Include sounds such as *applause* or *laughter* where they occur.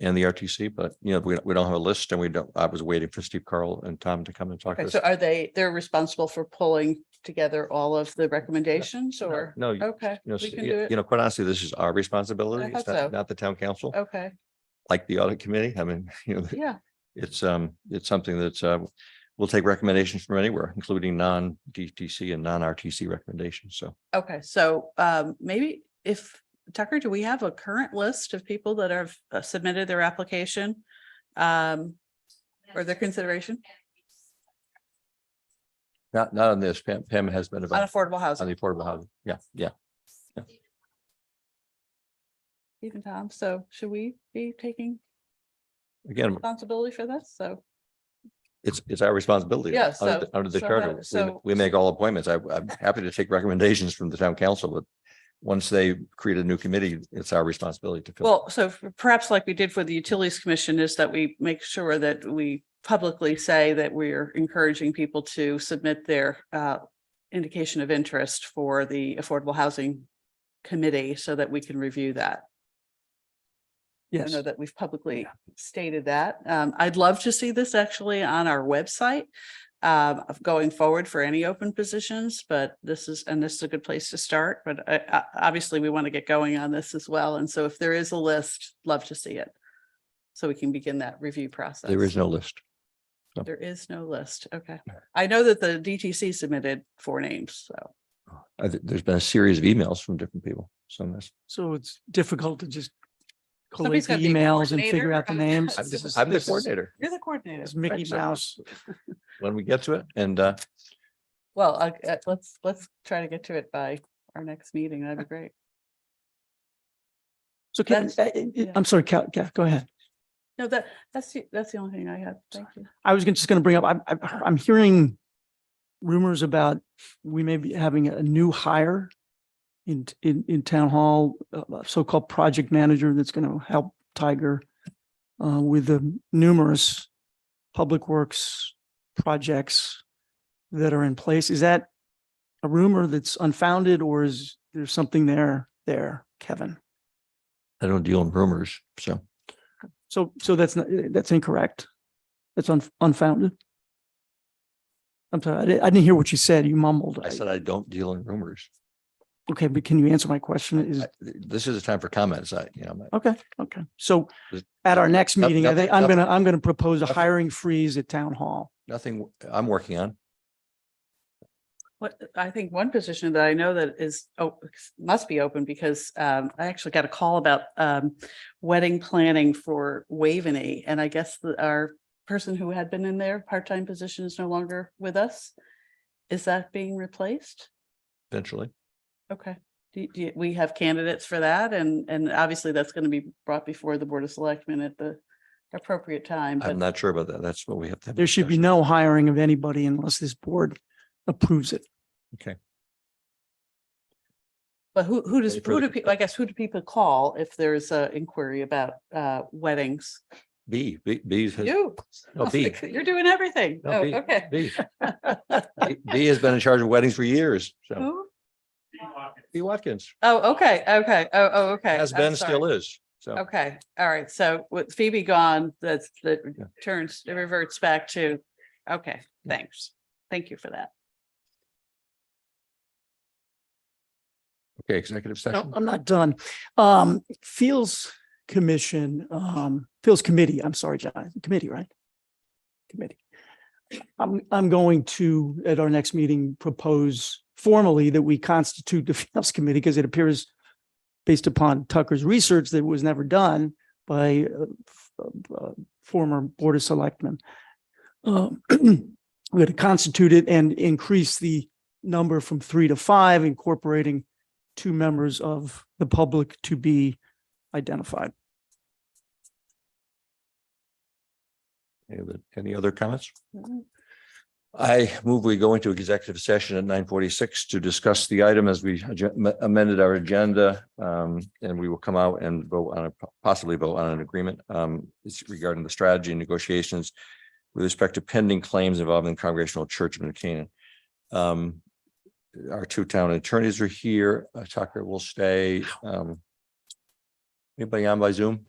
and the RTC, but you know, we, we don't have a list and we don't, I was waiting for Steve Carl and Tom to come and talk to Okay, us. so are they, they're responsible for pulling together all of the recommendations No, or? No, you Okay, you know, Oh, we s- can do you it. know, quite honestly, this is our responsibility. thought It's so. Oh. not, not the town council, Okay, like the audit committee. I mean, *laughs* you know, yeah, it's, um, it's something that's, uh, we'll take recommendations from anywhere, including non-DTC and non-RTC recommendations. So okay. So um, maybe if, Tucker, do we have a current list of people that have uh, submitted their application? Um, or their consideration not, not on this, Pam, Pam has been on about affordable on housing, the affordable housing. Yeah, yeah. even Tom. So should we be taking Again, responsibility for this? So, it's, it's our responsibility. Yeah, Under so- the- under the so charter, how- we ma- so- we make all appointments. I, I'm happy to take recommendations from the town council, but once they create a new committee, it's our responsibility to fill. well, so perhaps like we did for the Utilities Commission is that we make sure that we publicly say that we're encouraging people to submit their uh, indication of interest for the Affordable Housing Committee so that we can review that. I Yes, know that we've publicly stated that. Um, I'd love to see this actually on our website. Um, of going forward for any open positions, but this is, and this is a good place to start, but I, I, obviously we want to get going on this as well. And so if there is a list, love to see it. So we can begin that review process. there is no list. There is no list. Okay. I know that the DTC submitted four names, so. I thi- there's been a series of emails from different people. So that's, So it's difficult to just Somebody's collate the gotta be a emails and figure coordinator. out the names. I'm This is- the- I'm the this is- coordinator You're the coordinator. It's Mickey so- Mouse. when we get to it. And, uh, Well, I- uh, let's, let's try to get to it by our next meeting. That'd be great. So Ken, That's- uh, uh, yeah. I'm sorry, Ca- Ca- go ahead. No, that, that's, the that's the only thing I have. Thank you. I was gonna- just going to bring up, I'm, I'm- I'm hearing rumors about we may be having a new hire in, t- in, in town hall, a- a so-called project manager that's going to help Tiger uh, with the numerous public works projects that are in place. Is that a rumor that's unfounded or is there something there, there, Kevin? I don't deal in rumors. So So, so that's not, that's incorrect. That's un- unfounded. I'm sorry, I didn't, I didn't hear what you said. You mumbled. I said I don't deal in rumors. Okay, but can you answer my question? Mm. Is, I- This is a time for comments. I, you know, I'm not- okay, okay. So There's- at our next Noth- meeting, I think I'm nothing- gonna, I'm gonna propose a nothing- hiring freeze at town hall. nothing I'm working on. What, I think one position that I know that is, oh, must be open because um, I actually got a call about um, wedding planning for Waveney. And I guess the- our person who had been in their part-time position is no longer with us. Is that being replaced? Eventually, Okay. Do, do, we have candidates for that? And, and obviously that's going to be brought before the Board of Selectmen at the appropriate time. I'm But not sure about that. That's what we have to. have a There should be discussion. no hiring of anybody unless this board approves it. But who, who does, Any who further do people, I guess, who do people call if there's a inquiry about uh weddings? B, B, B has, *laughs* You. no, Oh, B, *laughs* like, You're doing everything. No, Oh, B. okay. *laughs* B. B- B has been in charge of weddings for years. So Who? B Watkins Oh, okay, okay, oh, oh, okay. has I'm been, sorry. still is. So Okay, all right. So with Phoebe gone, that's, that Yeah. turns, it reverts back to, okay, thanks. Thank you for that. okay, executive No, session. Oh. I'm not done. Um, Fields Commission, um, Fields Committee, I'm sorry, John, committee, right? Committee. I'm, I'm going to, at our next meeting, propose formally that we constitute the *laughs* Fields Committee because it appears based upon Tucker's research that was never done by uh, f- uh, former Board of Selectmen. Um, *clears throat* We're going to constitute it and increase the number from three to five, incorporating two members of the public to be identified. Any other- Any other comments? I move we go into executive session at nine forty-six to discuss the item as we ag- amended our agenda. Um, and we will come out and vote on, a possibly vote on an agreement, um, it's regarding the strategy and negotiations with respect to pending claims involving Congregational Church of New Canaan. Um, our two town attorneys are here. Uh, Tucker will stay. Um, anybody on by Zoom?